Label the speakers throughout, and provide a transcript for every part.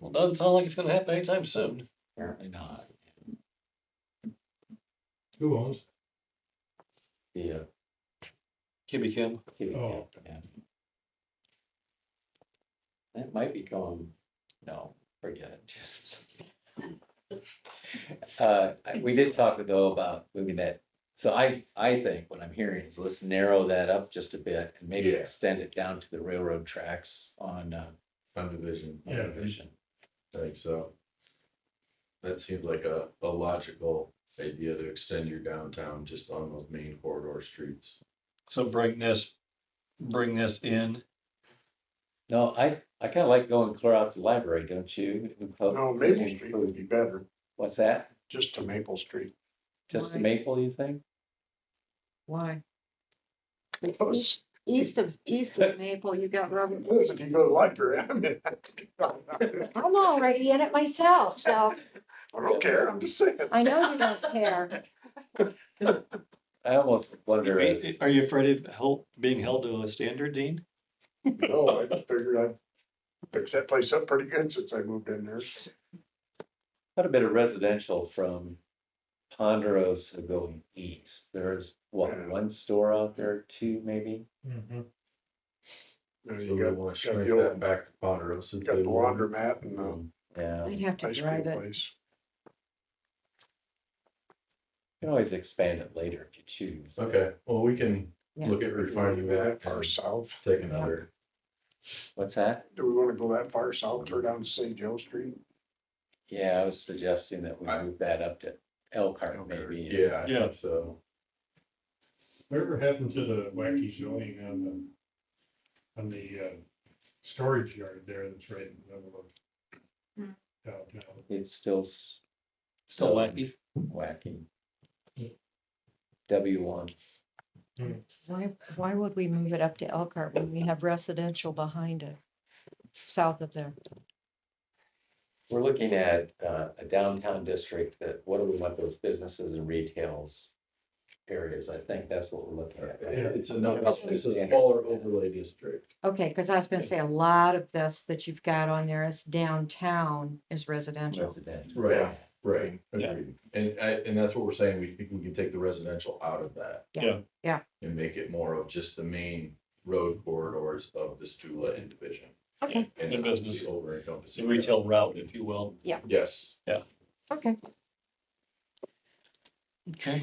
Speaker 1: Well, doesn't sound like it's gonna happen anytime soon.
Speaker 2: Apparently not.
Speaker 3: Who owns?
Speaker 2: Yeah.
Speaker 1: Kimmy Kim,
Speaker 3: Oh.
Speaker 2: That might be going, no, forget it, just. Uh, I- we did talk though about moving that, so I, I think what I'm hearing is let's narrow that up just a bit and maybe
Speaker 4: Yeah.
Speaker 2: extend it down to the railroad tracks on, uh,
Speaker 4: Condivision,
Speaker 3: Yeah.
Speaker 2: Vision.
Speaker 4: I think so. That seems like a, a logical idea to extend your downtown just on those main corridor streets.
Speaker 1: so bring this, bring this in.
Speaker 2: No, I, I kinda like going clear out the library, don't you?
Speaker 5: No, Maple Street would be better,
Speaker 2: What's that?
Speaker 5: just to Maple Street.
Speaker 2: Just the
Speaker 6: Right.
Speaker 2: Maple, you think?
Speaker 6: Why?
Speaker 5: Because
Speaker 6: East of, east of Maple, you got Robert.
Speaker 5: if you go to the library, I mean. I
Speaker 6: I'm already in it myself, so
Speaker 5: don't care, I'm just saying.
Speaker 6: I know you don't care.
Speaker 2: I almost wonder, if-
Speaker 1: Are you afraid of help being held to a standard, Dean?
Speaker 5: No, I figured I'd fix that place up pretty good since I moved in there.
Speaker 2: quite a bit of residential from Ponderosa going east. There's what,
Speaker 5: Yeah.
Speaker 2: one store out there, two maybe?
Speaker 3: Mhm.
Speaker 5: You know,
Speaker 4: So
Speaker 5: you
Speaker 4: we
Speaker 5: got,
Speaker 4: wanna
Speaker 5: got
Speaker 4: shrink
Speaker 5: the
Speaker 4: that
Speaker 5: old,
Speaker 4: back to Ponderosa.
Speaker 5: got the
Speaker 4: too.
Speaker 5: laundromat and the
Speaker 2: Um, Yeah,
Speaker 6: I'd
Speaker 2: you
Speaker 6: have to
Speaker 5: ice cream
Speaker 6: drive it.
Speaker 5: place.
Speaker 2: can always expand it later if you choose.
Speaker 4: Okay, well, we can
Speaker 6: Yeah.
Speaker 4: look at refining that
Speaker 5: Far
Speaker 4: and
Speaker 5: south,
Speaker 4: take another,
Speaker 2: What's that?
Speaker 5: do we wanna go that far south or down to St. Joe Street?
Speaker 2: Yeah, I was suggesting that we
Speaker 4: I-
Speaker 2: move that up to Elkhart
Speaker 5: Elkhart,
Speaker 2: maybe.
Speaker 4: yeah, I
Speaker 1: Yeah.
Speaker 4: think so.
Speaker 3: Whatever happened to the wacky zoning on the, on the, uh, storage yard there that's right in the middle
Speaker 6: Hmm.
Speaker 3: of downtown?
Speaker 2: It's still s- uh,
Speaker 1: Still wacky.
Speaker 2: wacky. W one,
Speaker 6: Why, why would we move it up to Elkhart when we have residential behind it? South of there.
Speaker 2: we're looking at uh, a downtown district that, what do we want those businesses and retails areas? I think that's what we're looking at. right?
Speaker 3: Yeah.
Speaker 4: It's another, it's a
Speaker 2: Yeah.
Speaker 4: smaller overlay district.
Speaker 6: Okay, because I was gonna say a lot of this that you've got on there is downtown is residential.
Speaker 2: Residential.
Speaker 4: Right, right,
Speaker 1: Yeah.
Speaker 4: agreed. And I, and that's what we're saying, we think we can take the residential out of that.
Speaker 1: Yeah.
Speaker 6: Yeah.
Speaker 4: And make it more of just the main road corridors of this Tula and Division.
Speaker 6: Okay,
Speaker 4: And
Speaker 1: And
Speaker 4: not the
Speaker 1: business.
Speaker 4: Over encompassing.
Speaker 1: The retail route, if you will.
Speaker 4: Yes,
Speaker 6: okay.
Speaker 1: Okay.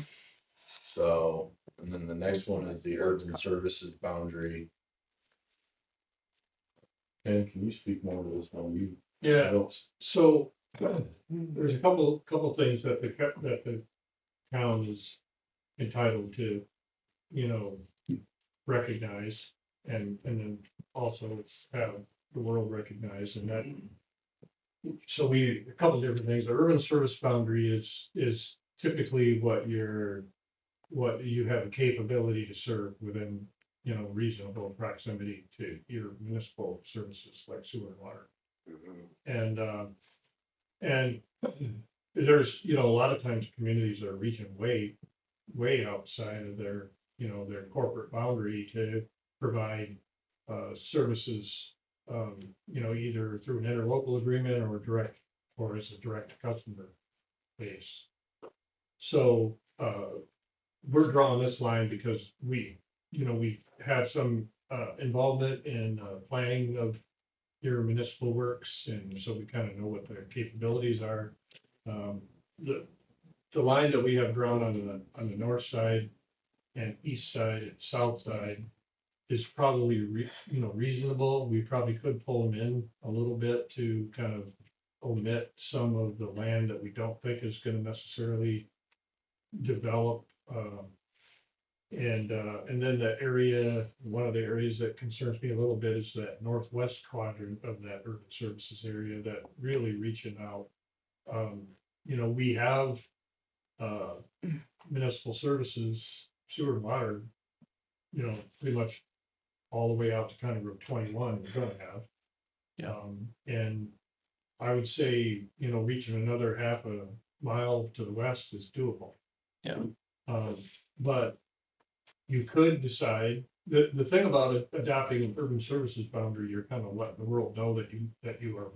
Speaker 4: so, and then the next one is the urban services boundary. Ken, can you speak more to this one? You.
Speaker 3: Yeah,
Speaker 4: don't s-
Speaker 3: so there's a couple, couple things that the, co- that the town is entitled to, you know, recognize and, and then also have the world recognize and that. So we, a couple different things. The urban service boundary is, is typically what your, what you have a capability to serve within, you know, reasonable proximity to your municipal services like sewer and water. And, um, and there's, you know, a lot of times communities are reaching way, way outside of their, you know, their corporate boundary to provide, uh, services, um, you know, either through an interlocal agreement or direct, or as a direct customer base. So, uh, we're drawing this line because we, you know, we have some, uh, involvement in, uh, planning of your municipal works, and so we kind of know what their capabilities are. Um, the, the line that we have drawn on the, on the north side and east side and south side is probably re, you know, reasonable. We probably could pull them in a little bit to kind of omit some of the land that we don't think is gonna necessarily develop, um, and, uh, and then the area, one of the areas that concerns me a little bit is that northwest quadrant of that urban services area that really reaching out. Um, you know, we have, uh, municipal services, sewer and water, you know, pretty much all the way out to kind of Route twenty-one we're gonna have.
Speaker 1: Yeah.
Speaker 3: Um, and I would say, you know, reaching another half a mile to the west is doable.
Speaker 1: Yeah.
Speaker 3: Um, but you could decide, the, the thing about adopting an urban services boundary, you're kind of letting the world know that you, that you are